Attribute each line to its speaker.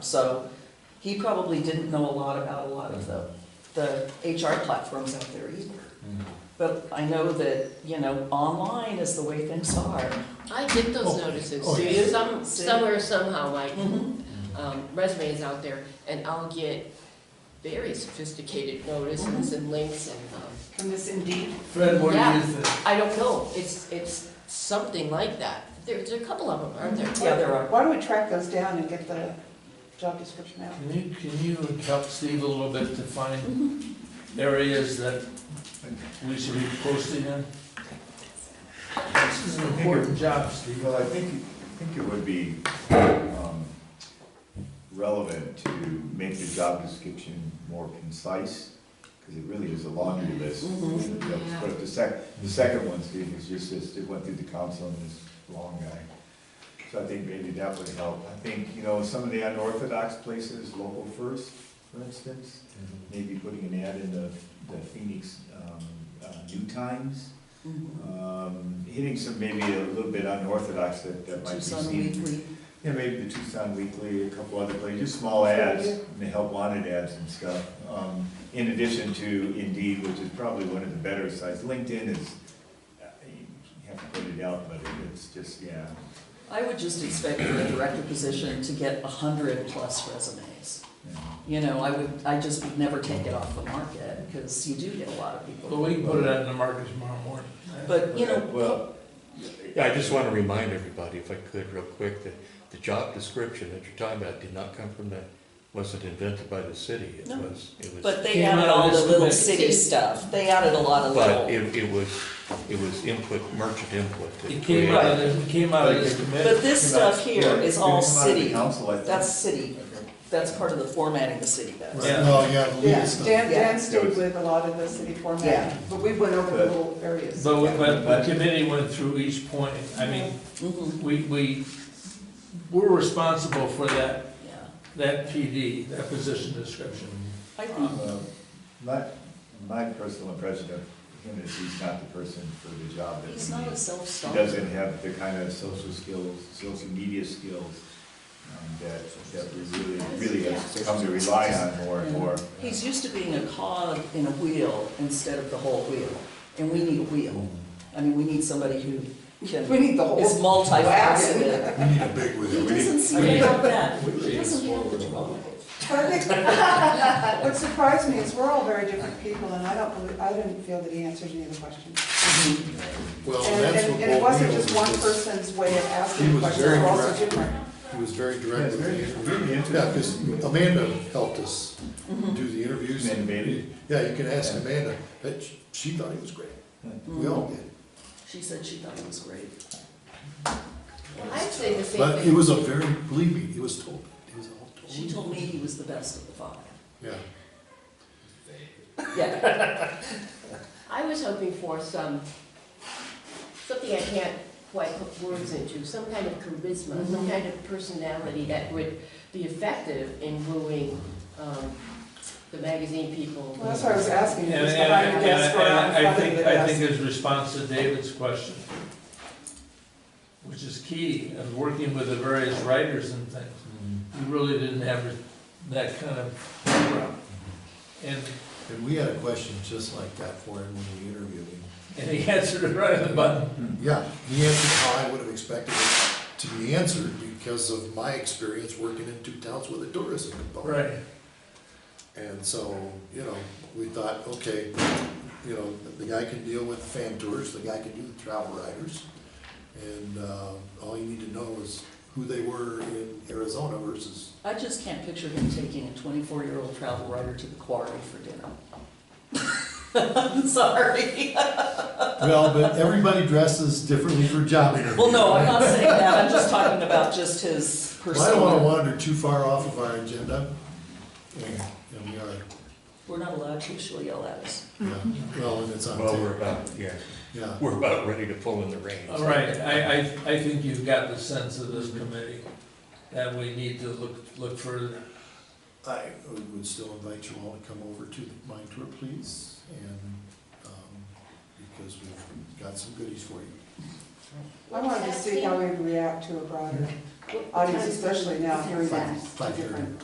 Speaker 1: So he probably didn't know a lot about a lot of the, the HR platforms out there either. But I know that, you know, online is the way things are.
Speaker 2: I get
Speaker 3: Oh,
Speaker 2: those notices,
Speaker 3: oh,
Speaker 2: do
Speaker 3: yes.
Speaker 2: you, some,
Speaker 1: See?
Speaker 2: somewhere, somehow, my
Speaker 3: Mm-hmm.
Speaker 1: Mhm.
Speaker 2: um, resume is out there, and I'll get very sophisticated notices and links and, um,
Speaker 4: From this Indeed?
Speaker 3: Fred, what do
Speaker 2: Yeah.
Speaker 3: you think?
Speaker 2: I don't know, it's, it's something like that. There's a couple of them, aren't there?
Speaker 1: Yeah, there are.
Speaker 4: Why don't we track those down and get the job description out?
Speaker 3: Can you, can you help Steve a little bit to find areas that we should be posting in? This is an important job, Steve.
Speaker 5: Well, I think, I think it would be um, relevant to make the job description more concise, because it really is a laundry list.
Speaker 1: Mhm.
Speaker 2: Yeah.
Speaker 5: But the sec, the second one, Steve, is just, this- it went through the council and this long guy. So I think maybe that would help. I think, you know, some of the unorthodox places, local first, for instance, maybe putting an ad in the the Phoenix um, uh, New Times,
Speaker 1: Mhm.
Speaker 5: um, hitting some maybe a little bit unorthodox that, that might be
Speaker 1: Tucson
Speaker 5: seen.
Speaker 1: Weekly.
Speaker 5: Yeah, maybe the Tucson Weekly, a couple other places, just small ads, and the help wanted ads and stuff. Um, in addition to Indeed, which is probably one of the better sites, LinkedIn is, uh, you have to put it out, but it's just, yeah.
Speaker 1: I would just expect for a director position to get a hundred plus resumes.
Speaker 5: yeah.
Speaker 1: You know, I would, I just would never take it off the market, because you do get a lot of
Speaker 3: Well,
Speaker 1: people.
Speaker 3: we can put it out in the market tomorrow morning.
Speaker 1: But, you know,
Speaker 5: Well.
Speaker 6: Yeah, I just want to remind everybody, if I could, real quick, that the job description that you're talking about did not come from the, wasn't invented by the city. It
Speaker 1: No.
Speaker 6: was, it was,
Speaker 1: But they
Speaker 3: Came
Speaker 1: added
Speaker 3: out of
Speaker 1: all the
Speaker 3: this
Speaker 1: little
Speaker 3: committee.
Speaker 1: city stuff, they added a lot of
Speaker 6: but
Speaker 1: little.
Speaker 6: it, it was, it was input, merchant input. that
Speaker 3: It came out of
Speaker 6: created-
Speaker 3: this, it came out of this
Speaker 1: But
Speaker 3: committee.
Speaker 1: this stuff here is all city,
Speaker 5: Council, I think.
Speaker 1: that's city, that's part of the formatting the city does.
Speaker 3: Yeah.
Speaker 7: Well, yeah, the
Speaker 4: Yeah,
Speaker 7: legal stuff.
Speaker 4: Dan,
Speaker 1: Yeah.
Speaker 4: Dan stayed with a lot of the city
Speaker 1: Yeah.
Speaker 4: format, but we went over the little areas.
Speaker 3: But, we- but the committee went through each point. I mean,
Speaker 4: Mm-hmm.
Speaker 1: Mhm,
Speaker 3: we, we, we're responsible for that,
Speaker 1: yeah.
Speaker 3: that PD, that position description.
Speaker 1: I think
Speaker 5: Uh, My, my personal impression of him is he's not the person for the job that we
Speaker 1: he's not a
Speaker 5: need. He
Speaker 1: self-starter.
Speaker 5: doesn't have the kind of social skills, social media skills um, that, that we really, really have come to rely on more and more.
Speaker 1: He's used to being a cog in a wheel instead of the whole wheel, and we need a wheel.
Speaker 7: Mm-hmm.
Speaker 1: I mean, we need somebody who can,
Speaker 4: We
Speaker 1: is
Speaker 4: need the whole,
Speaker 1: multifaceted.
Speaker 7: We need a big
Speaker 1: He
Speaker 7: wheel.
Speaker 1: doesn't seem to have that, he doesn't have the job.
Speaker 4: but I think, what surprised me is we're all very different people, and I don't believe, I didn't feel that he answered any of the questions.
Speaker 7: Well,
Speaker 4: And,
Speaker 7: that's
Speaker 4: and
Speaker 7: what
Speaker 4: and it
Speaker 7: Walt
Speaker 4: wasn't
Speaker 7: Wheeler
Speaker 4: just one
Speaker 7: was.
Speaker 4: person's way of
Speaker 7: He
Speaker 4: asking
Speaker 7: was
Speaker 4: questions,
Speaker 7: very
Speaker 4: we're all so
Speaker 7: direct.
Speaker 4: different.
Speaker 7: He was very
Speaker 5: Yeah,
Speaker 7: direct
Speaker 5: it's
Speaker 7: with
Speaker 5: very,
Speaker 7: the interview.
Speaker 5: really
Speaker 7: Yeah,
Speaker 5: interesting.
Speaker 7: because Amanda helped us
Speaker 4: Mm-hmm.
Speaker 7: do the interviews.
Speaker 5: Amanda Bailey?
Speaker 7: Yeah, you can ask
Speaker 5: Yeah.
Speaker 7: Amanda, that she- she thought he was great.
Speaker 5: Uh,
Speaker 7: We all
Speaker 4: Mm-hmm.
Speaker 7: did.
Speaker 1: She said she thought it was great.
Speaker 2: I'd say the same
Speaker 7: But it
Speaker 2: thing.
Speaker 7: was a very, believe me, it was told, it was all told.
Speaker 1: She told me he was the best of the five.
Speaker 7: Yeah.
Speaker 1: Yeah,
Speaker 2: I was hoping for some, something I can't quite put words into, some kind of charisma,
Speaker 4: Mm-hmm.
Speaker 2: some kind of personality that would be effective in wooing, um, the magazine people.
Speaker 4: Well, that's what I was asking,
Speaker 3: And,
Speaker 4: it
Speaker 3: and,
Speaker 4: was
Speaker 3: and
Speaker 4: behind the
Speaker 3: and-
Speaker 4: desk or out
Speaker 3: and
Speaker 4: in
Speaker 3: I
Speaker 4: front of the
Speaker 3: think, I think
Speaker 4: desk.
Speaker 3: his response to David's question, which is key, of working with the various writers and things,
Speaker 5: Mm-hmm.
Speaker 3: he really didn't have that kind of background. And,
Speaker 7: And we had a question just like that for him when we interviewed him.
Speaker 3: and he answered it right on the button.
Speaker 7: Yeah, he answered how I would have expected it to be answered because of my experience working in two towns with a tourism component.
Speaker 3: Right.
Speaker 7: And so, you know, we thought, okay, you know, the guy can deal with fan tours, the guy can do the travel riders. And uh, all you need to know is who they were in Arizona versus,
Speaker 1: I just can't picture him taking a twenty-four-year-old travel writer to the quarry for dinner. I'm sorry.
Speaker 7: well, but everybody dresses differently for job interviews.
Speaker 1: Well, no, I'm not saying that, I'm just talking about just his
Speaker 7: Well, I don't want to
Speaker 1: persona.
Speaker 7: wander too far off of our agenda. And and we are,
Speaker 1: We're not allowed to, she'll yell at us.
Speaker 7: yeah, well, and it's on
Speaker 6: Well,
Speaker 7: tape,
Speaker 6: we're about, yeah,
Speaker 7: yeah.
Speaker 6: we're about ready to pull in the reins.
Speaker 3: All right, I, I, I think you've got the sense of this committee, that we need to look, look further.
Speaker 7: I would still invite you all to come over to the mine tour, please, and, um, because we've got some goodies for you.
Speaker 4: I wanted to see how we'd react to a broader audience, especially now hearing
Speaker 2: Five-
Speaker 4: about the different